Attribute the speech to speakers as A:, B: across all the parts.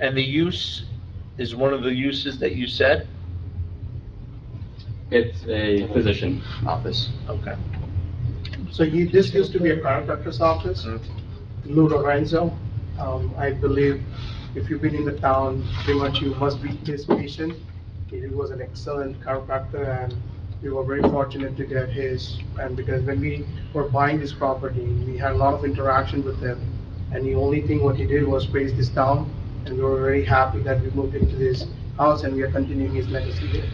A: And the use is one of the uses that you said?
B: It's a physician office.
A: Okay.
C: So you, this used to be a chiropractor's office, Lou Lorenzo. Um, I believe if you've been in the town, pretty much you must be his patient. He was an excellent chiropractor and we were very fortunate to get his. And because when we were buying this property, we had a lot of interaction with him. And the only thing what he did was raise this town and we were very happy that we moved into this house and we are continuing his legacy here.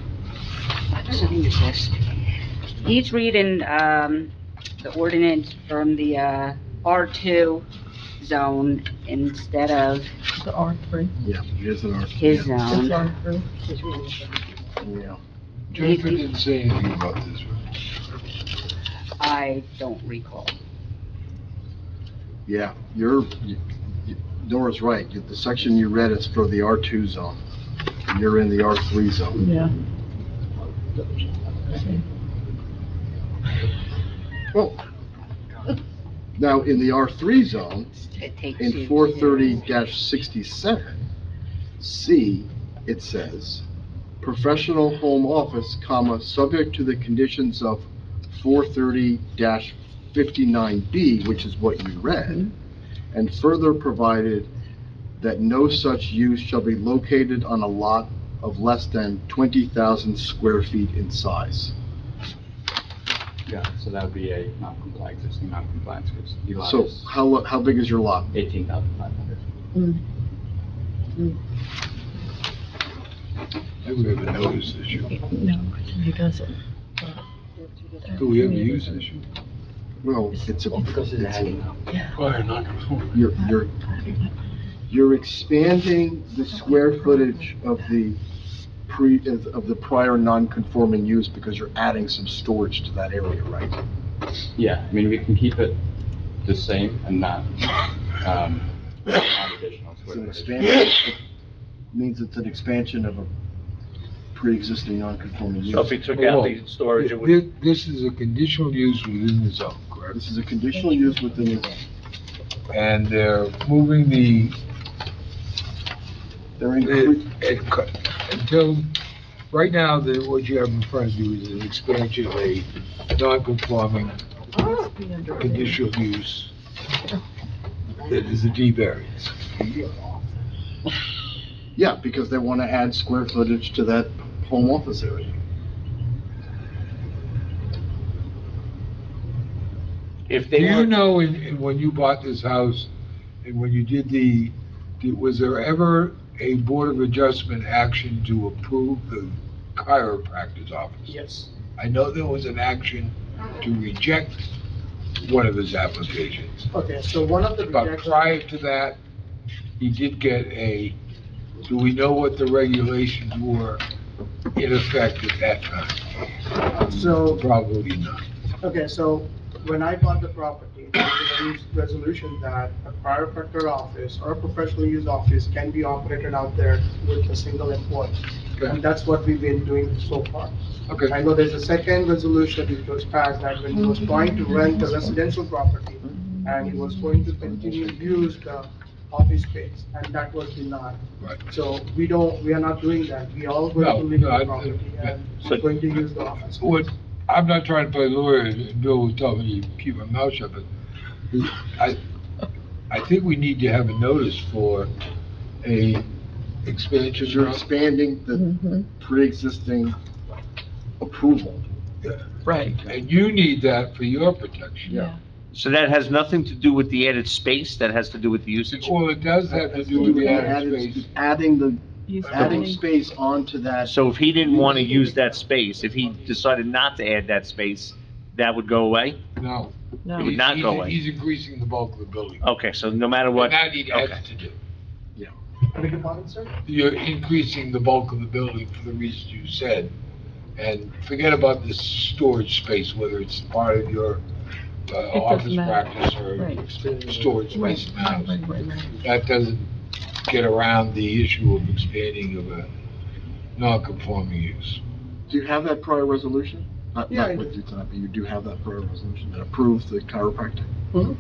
D: He's reading, um, the ordinance from the, uh, R2 zone instead of
E: The R three.
F: Yeah, it is an R.
D: his
E: It's
D: zone.
E: R three.
F: Yeah.
D: Jennifer
F: Jennifer
D: didn't
F: didn't say anything about this, right?
D: I don't recall.
F: Yeah, you're, you- you- Nora's right. The section you read is for the R2 zone. and You're in the R3 zone.
E: Yeah.
F: Well, now, in the R3 zone,
D: It takes you
F: in
D: to-
F: four thirty sixty-seven, C, it says, professional home office, comma, subject to the conditions of four thirty fifty-nine B, which is what you read, and further provided that no such use shall be located on a lot of less than twenty thousand square feet in size.
B: Yeah, so that would be a non-compliant, existing non-compliant, because the lot
F: So
B: is
F: how, how big is your lot?
B: 18,500.
G: Do we have a notice issue?
E: No, he doesn't.
G: Do we have a use issue?
F: Well, it's a,
B: Because it's a
F: it's a
B: hanging house.
G: Prior non-conforming.
F: You're, you're, you're expanding the square footage of the pre, of of the prior non-conforming use because you're adding some storage to that area, right?
B: Yeah, I mean, we can keep it the same and not, um, add additional
F: It's an
B: square footage.
F: expansion, it means it's an expansion of a pre-existing non-conforming
A: So if
F: use.
A: he took out the storage, it would,
G: This, this is a conditional use within the zone, correct?
F: This is a conditional use within the,
G: And they're moving the,
F: they're
G: it-
F: incre-
G: it cut- until, right now, the, what you have in front of you is an expansion of a non-conforming conditional use that is a D variance.
F: yeah, because they want to add square footage to that home office area.
A: if
G: Do
A: they
G: you
A: were,
G: know, in, in- when you bought this house, and when you did the, did- was there ever a Board of Adjustment action to approve the chiropractor's office?
C: Yes.
G: I know there was an action to reject one of his applications,
C: Okay, so one of the
G: but
C: rejections.
G: prior to that, he did get a, do we know what the regulations were in effect at that time?
C: So-
G: Probably not.
C: Okay, so when I bought the property, there was a resolution that a chiropractor office or a professional use office can be operated out there with a single employee. And
G: Okay,
C: that's what we've been doing so far.
G: okay.
C: I know there's a second resolution which was passed that when he was trying to rent a residential property and he was going to continue to use the office space, and that was denied.
G: Right.
C: So we don't, we are not doing that. We all going
G: No,
C: to leave
G: no, I-
C: the property and
A: So-
C: we're going to use the office.
G: What, I'm not trying to play lawyer, and Bill will tell me to keep my mouth shut, but I, I think we need to have a notice for a
F: Because
G: expansion.
F: you're expanding the pre-existing approval.
E: Right.
G: And you need that for your protection.
F: Yeah.
A: so that has nothing to do with the added space, that has to do with the usage?
G: Well, it does have to do with the added space.
F: Adding the,
E: He's
F: adding
E: adding-
F: space onto that
A: So if he didn't want to use that space, if he decided not to add that space, that would go away?
G: No.
E: no.
A: It would not go
G: He's-
A: away.
G: He's increasing the bulk of the building.
A: Okay, so no matter what,
G: And that he
A: okay.
G: has to do.
C: Beg your pardon, sir?
G: You're increasing the bulk of the building for the reasons you said. And forget about this storage space, whether it's part of your uh,
E: doesn't
G: office
E: matter.
G: practice or
E: Right.
G: storage space
E: Right,
G: in the
E: right, right,
G: house.
E: right.
G: That doesn't get around the issue of expanding of a non-conforming use.
F: Do you have that prior resolution? Not,
C: Yeah,
F: not
C: I
F: with you tonight, but you do have that prior resolution that approves the chiropractic?
C: Mhm.